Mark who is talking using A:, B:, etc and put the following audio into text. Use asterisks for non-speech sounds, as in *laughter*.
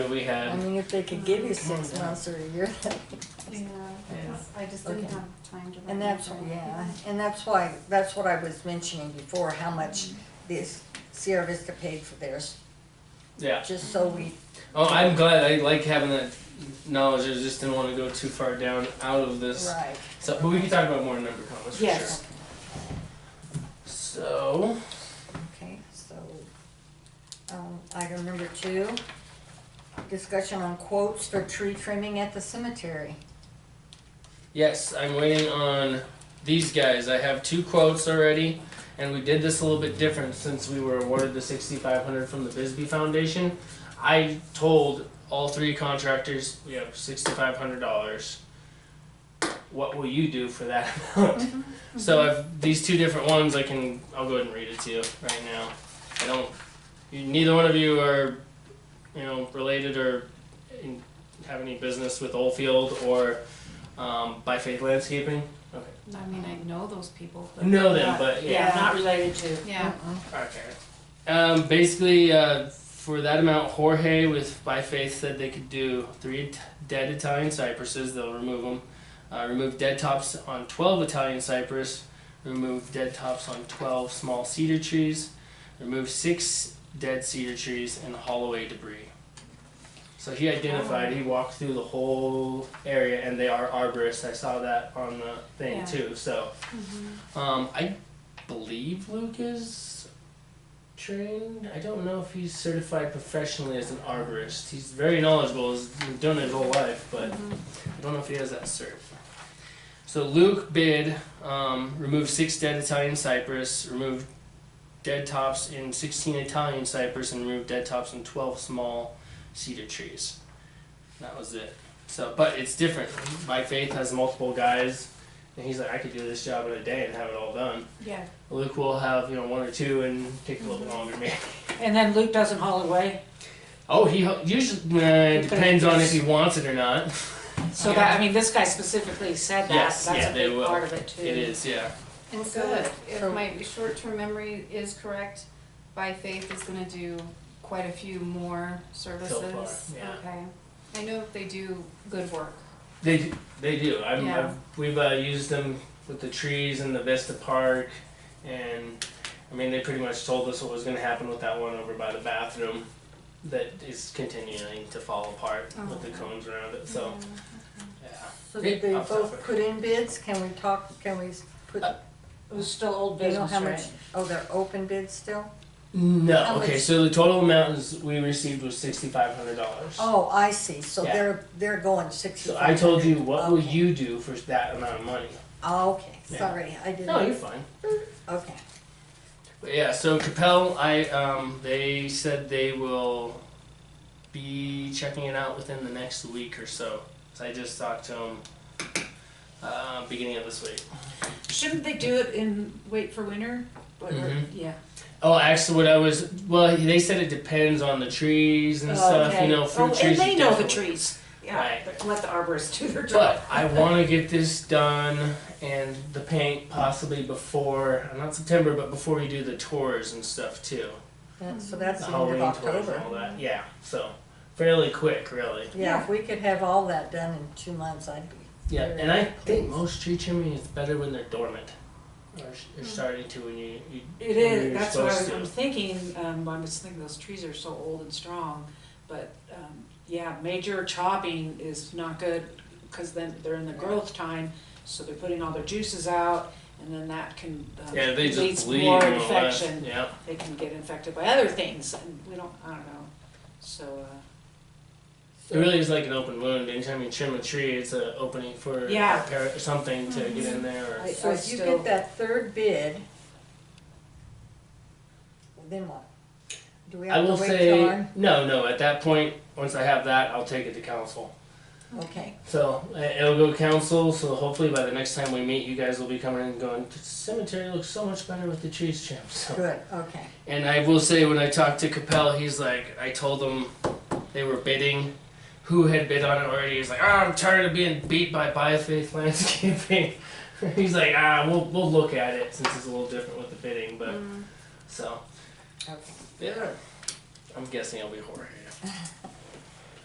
A: We
B: I
A: had,
B: mean, if they could give you six months or a year, *laughs*
C: Yeah, I just didn't
B: Okay.
C: have time to. write
B: and that's,
C: anything.
B: yeah, and that's why, that's what I was mentioning before, how much this Sierra Vista paid for theirs,
A: yeah.
B: just so we,
A: Oh, I'm glad. I like having that knowledge. I just didn't want to go too far down out of this.
B: right.
A: So, but we can talk about more number comments for
D: Yes.
A: sure. So,
B: Okay, so, um, item number two, discussion on quotes for tree trimming at the cemetery.
A: yes, I'm waiting on these guys. I have two quotes already, and we did this a little bit different since we were awarded the 6,500 from the Bisbee Foundation. I told all three contractors we have $6,500. What will you do for that *laughs* amount? So I've these two different ones I can I'll go ahead and read it to you right now. I don't you, neither one of you are you know related or in, have any business with Oldfield or um, By Faith Landscaping. Okay.
D: I mean, I know those people, but.
A: Know them,
D: not-
A: but yeah.
D: Yeah, not,
E: related to.
D: yeah,
B: Uh-uh.
A: Okay. Um, basically, uh, for that amount, Jorge with By Faith said they could do three t- dead Italian cypresses. They'll remove them. Uh, remove dead tops on 12 Italian cypress. Remove dead tops on 12 small cedar trees. Remove six dead cedar trees and haul away debris. So he identified, he walked through the whole area, and they are arborists. I saw that on the thing
D: Yeah.
A: too. So,
B: Mm-hmm.
D: Mm-hmm.
A: um, I believe Luke is trained. I don't know if he's certified professionally as an arborist. He's very knowledgeable. He's done it his whole life, but I don't know if he has that cert. So Luke bid um, remove six dead Italian cypress, remove dead tops in 16 Italian cypress, and remove dead tops in 12 small cedar trees. That was it. So, but it's different. By Faith has multiple guys, and he's like, I could do this job in a day and have it all done.
D: yeah,
A: Luke will have you know one or two and take a little bit longer maybe.
E: And then Luke doesn't haul away,
A: *laughs* Oh, he ho- usually nah, it depends on if he wants it or not.
E: so that, I mean, this guy specifically said that,
A: Yes,
E: that's
A: yeah,
E: a
A: they
E: big
A: will.
E: part of it too.
A: It is, yeah.
D: and so
E: Good.
D: if- if my short-term memory is correct, By Faith is gonna do quite a few more services,
A: yeah.
D: okay. I know they do good work,
A: They they do. I'm,
D: Yeah.
A: I've, we've uh, used them with the trees in the Vista Park, and I mean they pretty much told us what was going to happen with that one over by the bathroom, that is continuing to fall apart with the
D: Oh.
A: cones around it. So yeah.
B: So did they
A: Yeah, I'll stop
B: both
A: it.
B: put in bids? Can we talk, can we put,
E: It was still old
B: you know
E: business,
B: how much,
E: right?
B: oh, they're open bids still?
A: No.
B: How
A: okay.
B: much-
A: So the total amount is, we received was sixty five hundred dollars.
B: Oh, I see, so
A: Yeah.
B: they're, they're going
A: So
B: sixty-five
A: I
B: hundred. Oh,
A: told you, what will you do for that amount of money?
B: Okay,
A: Yeah.
B: sorry, I didn't.
A: No, you're fine.
B: Okay,
A: But yeah, so Capel, I um, they said they will be checking it out within the next week or so. So I just talked to them uh, beginning of this week.
E: Shouldn't they do it in, wait for winter? But-
A: Mhm.
E: Yeah.
A: Oh, actually, what I was well, they said it depends on the trees and stuff.
E: Okay.
A: You know, fruit
E: Oh,
A: trees.
E: And they
A: you
E: know the
A: definitely-
E: trees, yeah,
A: Right.
E: but let the arborists do their job.
A: But I want to get this done and the paint possibly before, not September, but before we do the tours and stuff too.
B: That- so that's
A: The
B: the end
A: Halloween
B: of
A: tours and
B: October.
A: all that. Yeah, so fairly quick, really.
B: Yeah, if we could have all that done in two months, I'd be,
A: Yeah, and I think most tree trimming is better when they're dormant. Or s- you're starting to when you, you
E: Hmm. It
A: when
E: is,
A: you're
E: that's what I
A: supposed
E: was,
A: to.
E: I'm thinking, um, I was thinking those trees are so old and strong, but, um, yeah, major chopping is not good, cause then they're in the growth time, so they're putting all their juices out, and then that can, um,
A: Yeah, they
E: leads
A: just bleed
E: more
A: and all that.
E: infection,
A: Yeah.
E: they can get infected by other things, and we don't, I don't know, so, uh,
A: It really is like an open wound. Anytime you trim a tree, it's an opening for a
E: Yeah. Hmm.
A: parrot or something to get in there. Or,
E: I-
B: so
E: I
B: if you
E: still-
B: get that third bid, then what? Do we
A: I
B: have
A: will
B: to wait till
A: say
B: our,
A: no, no. At that point, once I have that, I'll take it to council.
B: okay,
A: So uh, it'll go to council. So hopefully by the next time we meet, you guys will be coming in and going. The cemetery looks so much better with the trees trimmed. *laughs* So.
B: good, okay,
A: And I will say when I talked to Capel, he's like, I told him they were bidding. Who had bid on it already? He's like, ah, I'm tired of being beat by Biofaith Landscaping. *laughs* he's like, ah, we'll we'll look at it since it's a little different with the bidding, but so.
B: okay.
A: Yeah. I'm guessing it'll be Jorge.